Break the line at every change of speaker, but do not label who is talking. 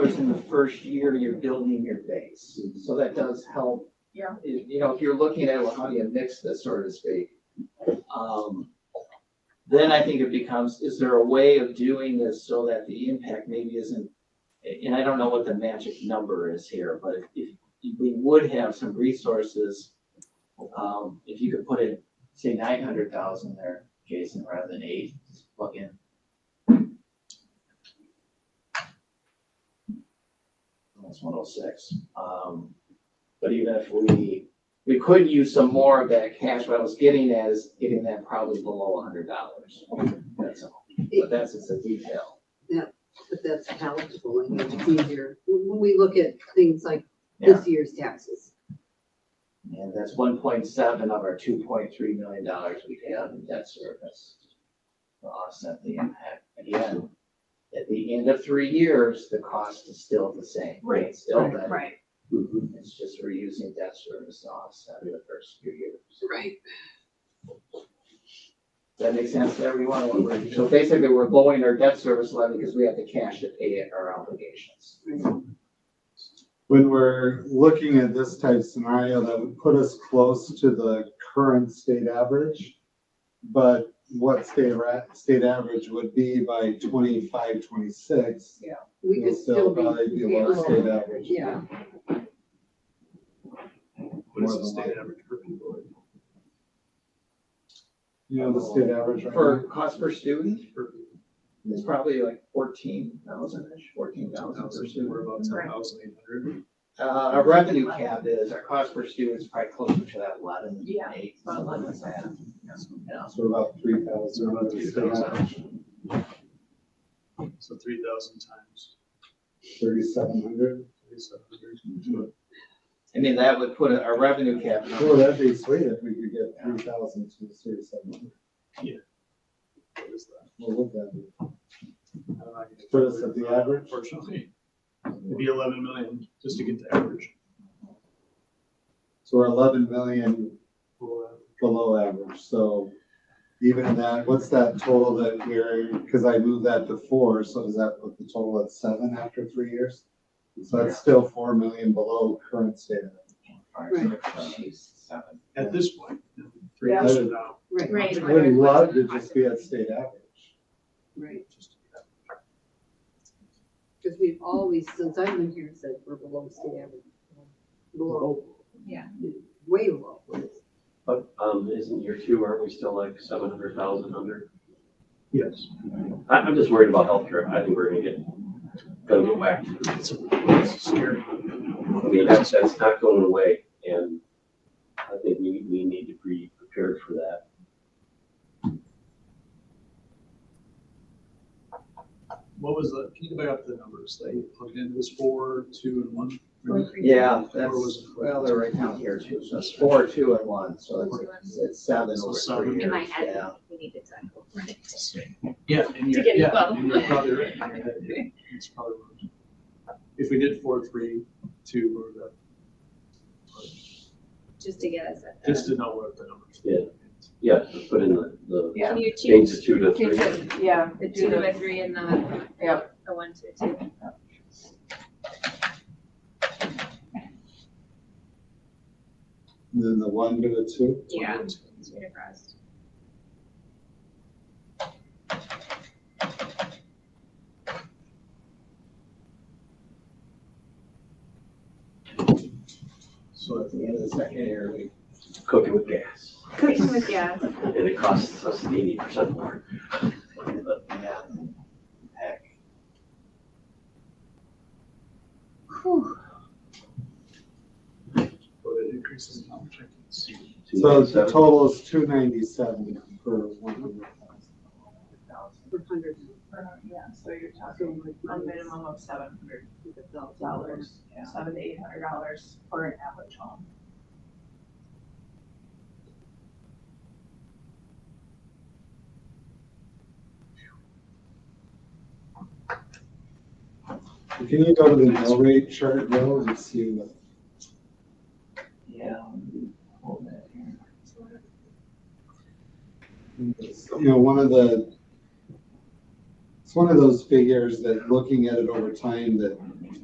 dollars in the first year you're building your base. So that does help.
Yeah.
You you know, if you're looking at, well, how do you mix this, so to speak? Um, Then I think it becomes, is there a way of doing this so that the impact maybe isn't, and I don't know what the magic number is here, but if, if we would have some resources, um, if you could put in, say, nine hundred thousand there, Jason, rather than eight, just plug in. That's one oh six. Um, but even if we, we could use some more of that cash, what I was getting at is getting that probably below hundred dollars. That's all. But that's just a detail.
But that's palatable and much easier. When we look at things like this year's taxes,
And that's one point seven of our two point three million dollars we have in debt service. To offset the impact. Again, at the end of three years, the cost is still the same.
Right.
It's Still that.
Right,
It's just we're using debt service to offset the first few years.
right?
That makes sense to everyone. What we're- So basically, we're blowing our debt service levy because we have the cash to pay our obligations.
when we're looking at this type scenario, that would put us close to the current state average. But what state ra- state average would be by twenty-five, twenty-six,
We
will
could still
still
be.
probably be below state average.
Yeah.
What is
More
the
than
state
likely.
average for people?
You know, the state average right now.
For cost per student, it's probably like fourteen thousand-ish, fourteen thousand per student.
We're about ten thousand eight hundred.
Uh, our revenue cap is, our cost per student is probably closer to that eleven,
Yeah,
eight,
about
something
11.
like that. Yeah.
So about three thousand, about the state average,
So three thousand times
thirty-seven hundred.
thirty-seven hundred.
I mean, that would put our revenue cap.
Well, that'd be sweet if we could get three thousand to thirty-seven hundred.
What is that?
What would that be?
I don't know, I can-
Put us at the average?
Unfortunately, it'd be eleven million just to get the average.
So we're eleven million
Well,
below average, so even that, what's that total that we're, because I moved that to four, so does that put the total at seven after three years? So that's still four million below current state.
Jeez, seven.
At this point, three
Yeah.
years from now.
Right,
right.
I would love to just be at state average.
right.
just to get that.
Because we've always, since I've been here, said we're below state average. Below.
Yeah.
Way below.
But, um, isn't year two, aren't we still like seven hundred thousand under?
Yes.
I, I'm just worried about healthcare. I think we're gonna get, gonna get whacked.
It's it's scary.
I mean, that's, that's not going away and I think we, we need to be prepared for that.
What was the, can you go back up to the numbers? They plugged in, it was four, two, and one.
Yeah,
Or
that's,
was it-
well, they're right down here too, so it's four, two, and one, so it's, it's seven
So
over
seven.
three
In my
years,
head,
yeah.
we need to tackle.
Yeah, and you're,
get it
yeah,
above.
and you're probably right. in your head, yeah. It's probably right. If we did four, three, two, or the,
Just to get us at
just
the.
to know what the numbers.
Yeah. Yeah, just put in the, the
Yeah.
Can you
change
choose
to two to three.
Yeah.
the two to a three and the,
Yeah.
the one to a two?
And Then the one to the two,
Yeah. It's right across.
So at the end of the second year, we,
Cooking with gas.
Cooking with gas.
And it costs us eighty percent more. But
yeah. Heck,
But it increases how much I can see.
two
so the
seven-
total is two ninety-seven for one hundred
thousand.
For hundred,
Yeah, so you're
so
talking a
like.
minimum of seven hundred
$100,000.
dollars, seven to eight hundred dollars for an average home.
thousand. Can you go to the mill rate chart, Bill, and see what?
Yeah. Hold that here.
you know, one of the, it's one of those figures that looking at it over time that